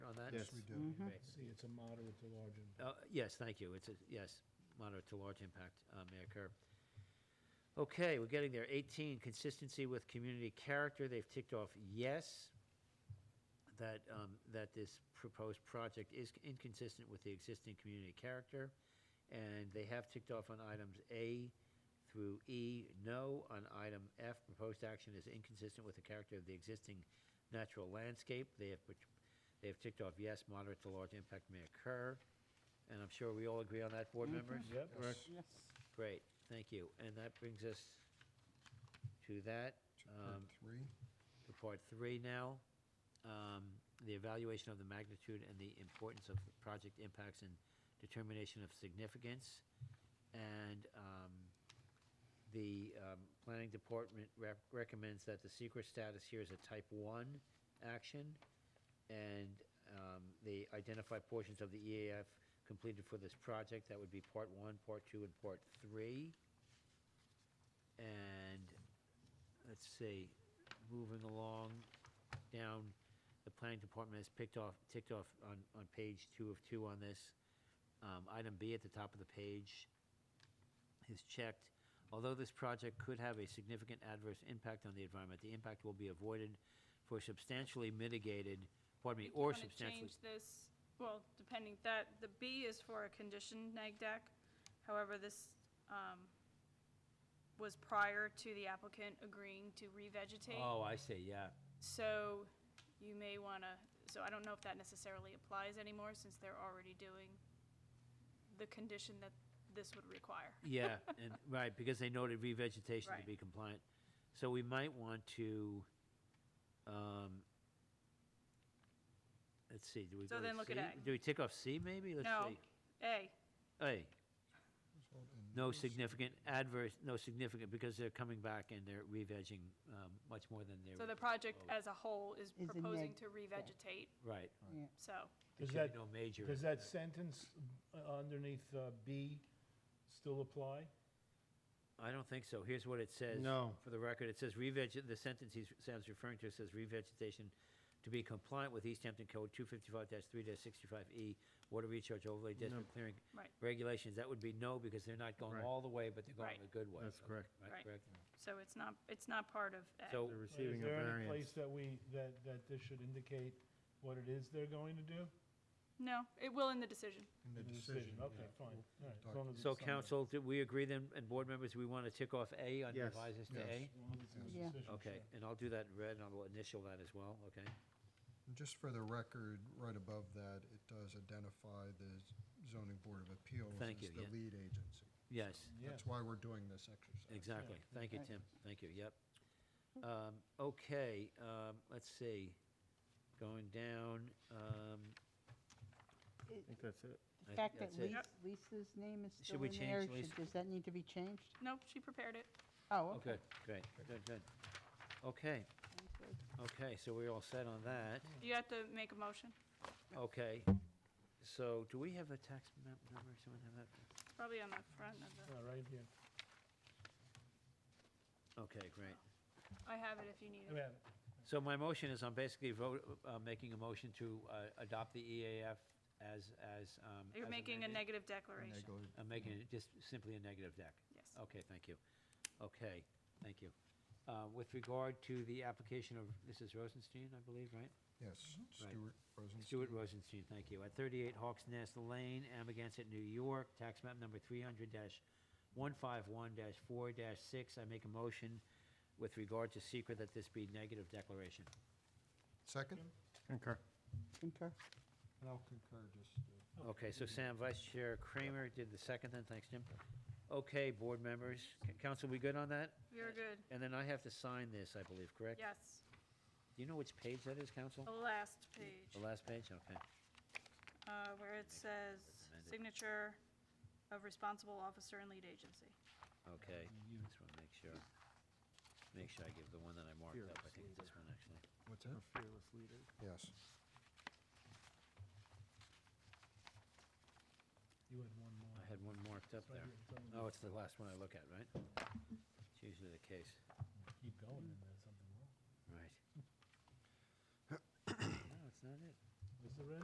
impact. Yes, Yes. we do. Mm-hmm. Mhm. See, it's a moderate to large impact. Uh, Yes, thank you. It's, a yes, moderate to large impact uh, may occur. Okay, we're getting there. 18, consistency with community character. They've ticked off yes, that, um, that this proposed project is inconsistent with the existing community character. And they have ticked off on items A through E, no. On item F, proposed action is inconsistent with the character of the existing natural landscape. They have, put- they have ticked off yes, moderate to large impact may occur. And I'm sure we all agree on that, board members? Yep. Yes. Yes. Great, thank you. And that brings us to that, To part Um, Three. to part three now. Um, The evaluation of the magnitude and the importance of project impacts and determination of significance. And um, the um, planning department rec- recommends that the secret status here is a type one action. And um, they identify portions of the E EAF completed for this project. That would be part one, part two, and part three. And, let's see, moving along down, the planning department has picked off, ticked off on, on page two of two on this. Um, item B at the top of the page is checked. Although this project could have a significant adverse impact on the environment, the impact will be avoided for substantially mitigated, pardon me, Do you or wanna substantially. Change this, well, depending, that, the B is for a conditioned neg deck. However, this um, was prior to the applicant agreeing to revegetate. Oh, I see, yeah. So you may want to, so I don't know if that necessarily applies anymore since they're already doing the condition that this would require. Yeah, and, right, because they noted revegetation to Right. be compliant. So we might want to, um, let's see, do we So go to then look at C? A. Do we tick off C maybe? Let's No, see. A, A, Result in no significant adverse, no significant, because they're coming back and they're revegging, um, much more than so they're, the project Oh. as a whole is Is a proposing neg to revegetate, right. so. There Does should be that- no major. Does that impact. sentence uh, underneath uh, B still apply? I don't think so. Here's what it says. No. For the record, it says reveg, the sentence he's, Sam's referring to says revegetation to be compliant with East Hampton Code two fifty-five three sixty-five E, water recharge overlay district clearing Right. regulations. That would be no, because they're not going Right. all the way, but they're going Right. a good way. That's Okay, correct. Right. Uh, Right, correct. So it's not, it's not part of A. So, They're Is receiving a there any variance. place that we, that, that this should indicate what it is they're going to do? No, it will in the decision. in the In decision. Okay, yeah. fine, all right. as Doc- long as it's so somewhere. council, did we agree then, and board members, we want to tick off A on Yes. revises to Yes. A? As long as it's in the Yeah. decision, Okay, sure. and I'll do that in red, and I'll initial that as well, okay? And Just for the record, right above that, it does identify the z- zoning board of appeals Thank you, as the yeah. lead agency. Yes. Yeah. That's why we're doing this exercise. Exactly. Thank you, Right. Tim. Thank you, yep. Um, okay, um, let's see. Going down, um, I think that's it. I The fact that think that's it. Lis- Lisa's name is still we in there, change should- Lisa? does that need to be changed? Nope, she prepared it. Oh, okay. okay, great, good, good. Okay, Sounds good. okay, so we're all set on that. You have to make a motion. Okay, so do we have a tax map number? Someone have that? Probably on the front of the, Yeah, right here. Okay, great. I have it if you need I it. mean, So my motion is I'm basically vote, uh, making a motion to, uh, adopt the EAF as, as, um. You're as making a amended. negative declaration. Negligent. I'm making it just simply a negative deck. Yes. Okay, thank you. Okay, thank you. Uh, With regard to the application of, this is Rosenstein, I believe, right? Yes, Stuart Rosenstein. Stuart Rosenstein, thank you. At 38 Hawks Nest Lane, Amagansett, New York, tax map number 300-151-4-6. I make a motion with regard to secret that this be negative declaration. Second? Concur. Concur. And I'll concur just. Okay, so Sam, Vice Chair Kramer did the second then, thanks, Jim. Okay, board members, C- council, we good on that? You're good. And then I have to sign this, I believe, correct? Yes, Do you know which page that is, council? the last The page, last page, okay. uh, where it says Amended. signature of responsible officer and lead agency. Okay, just want to make sure, make sure I give the one that I marked up, I think it's this one, actually. What's that? Fearless leader. Yes. You had one more. I had one marked up It's right there. here, it's on the- Oh, it's the last one I look at, right? It's usually the case, Keep going, and there's something wrong. right? No, it's not it. Is there